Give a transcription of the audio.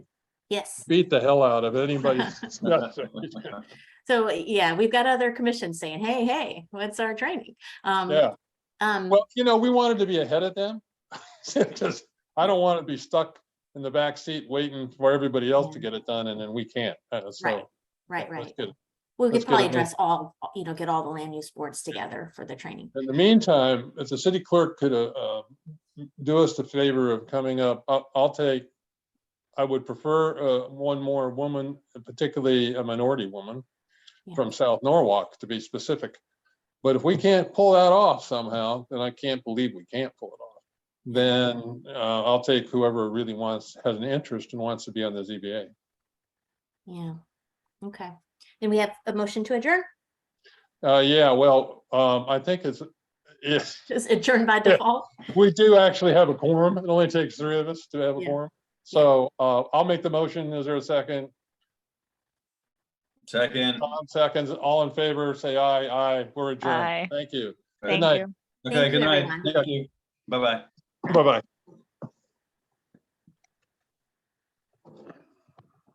Yes. beat the hell out of anybody's discussion. So yeah, we've got other commissions saying, hey, hey, what's our training? Um, Yeah, um, well, you know, we wanted to be ahead of them. Because I don't want to be stuck in the back seat waiting for everybody else to get it done and then we can't. Uh, Mm. right, So right, that's right. good. We that's could good probably idea. address all, you know, get all the land use boards together for the training. In the meantime, if the city clerk could uh, uh, do us the favor of coming up, I'll- I'll take, I would prefer uh, one more woman, particularly a minority woman Yeah. from South Norwalk, to be specific. But if we can't pull that off somehow, and I can't believe we can't pull it off, then uh, I'll take whoever really wants, has an interest and wants to be on the ZBA. Yeah. Okay. Then we have a motion to adjourn, Uh, Yeah, well, um, I think it's, it's, just adjourn by Yeah. default. We do actually have a quorum. It only takes three of us to have a Yeah. quorum. So uh, I'll make the motion. Is there a second? Second. Tom seconds. All in favor, say aye, aye. We're adjourned. Aye. Thank you. Thank Thank night. you. Okay, Thank you, good night. everyone. Thank you. Bye-bye. Bye-bye.